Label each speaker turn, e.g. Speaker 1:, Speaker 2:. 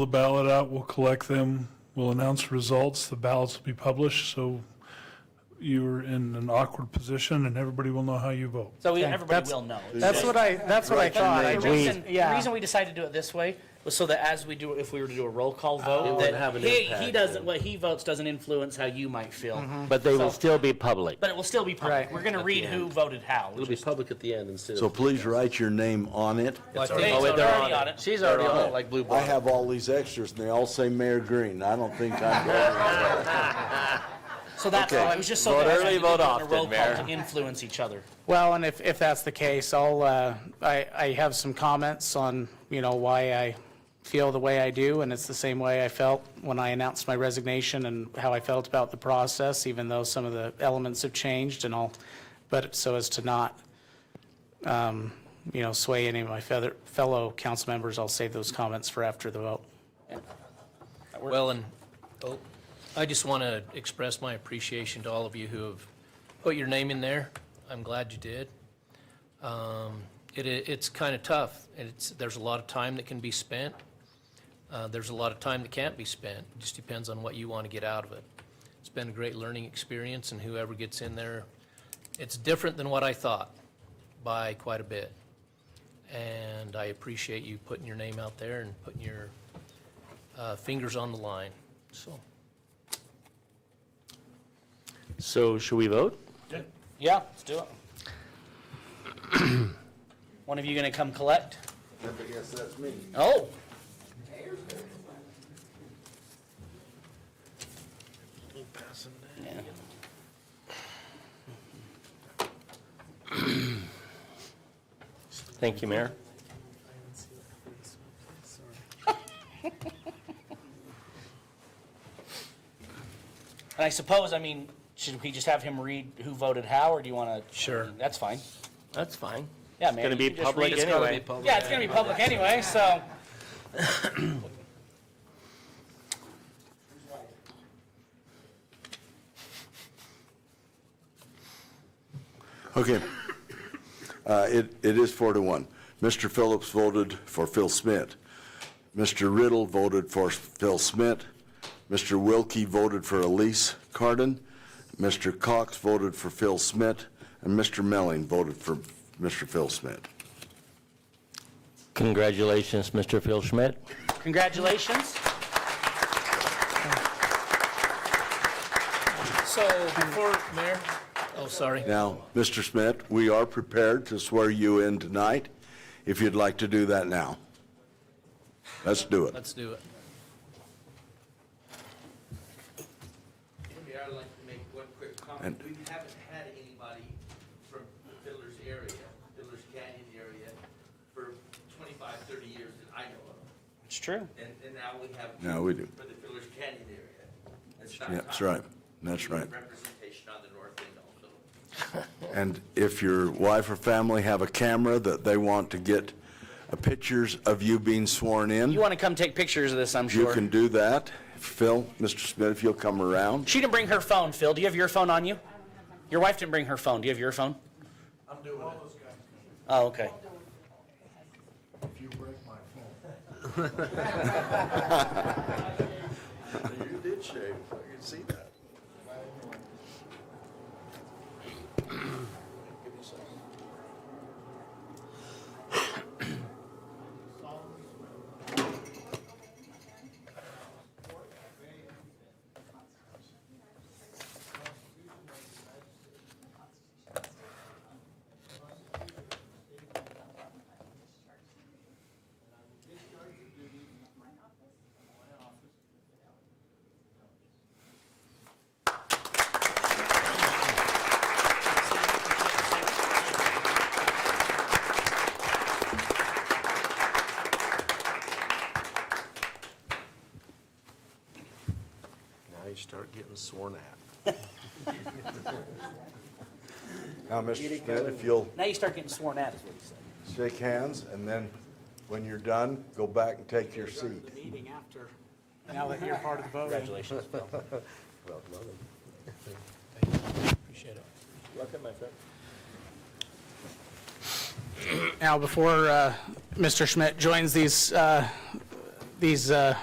Speaker 1: the ballot out, we'll collect them, we'll announce results, the ballots will be published, so you're in an awkward position and everybody will know how you vote.
Speaker 2: So we-
Speaker 3: Okay,
Speaker 2: everybody
Speaker 3: that's-
Speaker 2: will know. It's
Speaker 3: That's
Speaker 2: just-
Speaker 3: what I, that's what I thought. I
Speaker 2: The
Speaker 3: just-
Speaker 2: reason, the
Speaker 3: yeah.
Speaker 2: reason we decided to do it this way was so that as we do, if we were to do a roll call vote,
Speaker 4: wouldn't have
Speaker 2: that
Speaker 4: an
Speaker 2: he,
Speaker 4: impact,
Speaker 2: he doesn't, what he votes doesn't influence how you might feel.
Speaker 4: But they will
Speaker 2: So-
Speaker 4: still be public.
Speaker 2: But it will still be public.
Speaker 3: Mm-hmm. Right.
Speaker 2: We're gonna read who voted how.
Speaker 4: It'll be public at the end instead of.
Speaker 5: So please write your name on it.
Speaker 2: Hey,
Speaker 4: Oh, wait,
Speaker 2: it's
Speaker 4: they're
Speaker 2: already on it.
Speaker 4: She's already on it, like Blue
Speaker 5: I
Speaker 4: Ball.
Speaker 5: have all these extras and they all say Mayor Green. I don't think I'm going.
Speaker 2: So that's
Speaker 5: Okay.
Speaker 2: all. It was just so
Speaker 4: Vote
Speaker 2: that as
Speaker 4: early,
Speaker 2: we do
Speaker 4: vote
Speaker 2: it on a
Speaker 4: often,
Speaker 2: roll call to
Speaker 4: Mayor.
Speaker 2: influence each other.
Speaker 3: Well, and if, if that's the case, I'll, uh, I, I have some comments on, you know, why I feel the way I do, and it's the same way I felt when I announced my resignation and how I felt about the process, even though some of the elements have changed and all, but so as to not, um, you know, sway any of my feather- fellow council members, I'll save those comments for after the vote.
Speaker 6: Well, and oh, I just want to express my appreciation to all of you who have put your name in there. I'm glad you did. Um, It, i- it's kind of tough, and it's, there's a lot of time that can be spent. Uh, There's a lot of time that can't be spent. It just depends on what you want to get out of it. It's been a great learning experience, and whoever gets in there, it's different than what I thought by quite a bit. And I appreciate you putting your name out there and putting your uh, fingers on the line, so.
Speaker 4: So should we vote?
Speaker 2: Yeah, let's do it. One of you gonna come collect?
Speaker 5: Yes, that's me.
Speaker 2: Oh. Yeah.
Speaker 4: Thank you, Mayor.
Speaker 2: And I suppose, I mean, should we just have him read who voted how, or do you want to?
Speaker 6: Sure.
Speaker 2: That's fine.
Speaker 4: That's fine.
Speaker 2: Yeah, man.
Speaker 4: Going to
Speaker 2: you
Speaker 4: be
Speaker 2: can just
Speaker 4: public
Speaker 2: read it.
Speaker 4: anyway.
Speaker 2: Yeah, it's gonna be public anyway, so.
Speaker 5: Okay. Uh, It, it is four to one. Mr. Phillips voted for Phil Smith. Mr. Riddle voted for Phil Smith. Mr. Wilkie voted for Elise Cardin. Mr. Cox voted for Phil Smith. And Mr. Melling voted for Mr. Phil Smith.
Speaker 4: Congratulations, Mr. Phil Schmidt.
Speaker 2: Congratulations.
Speaker 6: So before, Mayor, oh, sorry.
Speaker 5: Now, Mr. Smith, we are prepared to swear you in tonight, if you'd like to do that now. Let's do it.
Speaker 6: Let's do it.
Speaker 7: Maybe I'd like to make one quick comment.
Speaker 5: And-
Speaker 7: We haven't had anybody from the Fiddler's area, Fiddler's Canyon area, for 25, 30 years that I know of.
Speaker 2: It's true.
Speaker 7: And, and now we have.
Speaker 5: Now we do.
Speaker 7: For the Fiddler's Canyon area. It's about
Speaker 5: Yeah, That's
Speaker 7: time.
Speaker 5: right. That's
Speaker 7: We need
Speaker 5: right.
Speaker 7: Representation on the north end also.
Speaker 5: And if your wife or family have a camera that they want to get uh, pictures of you being sworn
Speaker 2: You
Speaker 5: in,
Speaker 2: want to come take pictures of this, I'm
Speaker 5: you
Speaker 2: sure.
Speaker 5: can do that. Phil, Mr. Smith, if you'll come around.
Speaker 2: She didn't bring her phone, Phil. Do you have your phone on you? Your wife didn't bring her phone. Do you have your phone?
Speaker 7: I'm doing it.
Speaker 2: Oh, okay.
Speaker 5: You did shave. I can see that.
Speaker 4: Now you start getting sworn at.
Speaker 5: Now, Mr. Smith, if you'll
Speaker 2: Now you start getting sworn at, is what you said.
Speaker 5: shake hands, and then when you're done, go back and take your seat.
Speaker 3: Meeting after, now that you're part of the voting.
Speaker 2: Congratulations, Phil.
Speaker 6: Appreciate it.
Speaker 3: Now, before uh, Mr. Schmidt joins these uh, these, uh,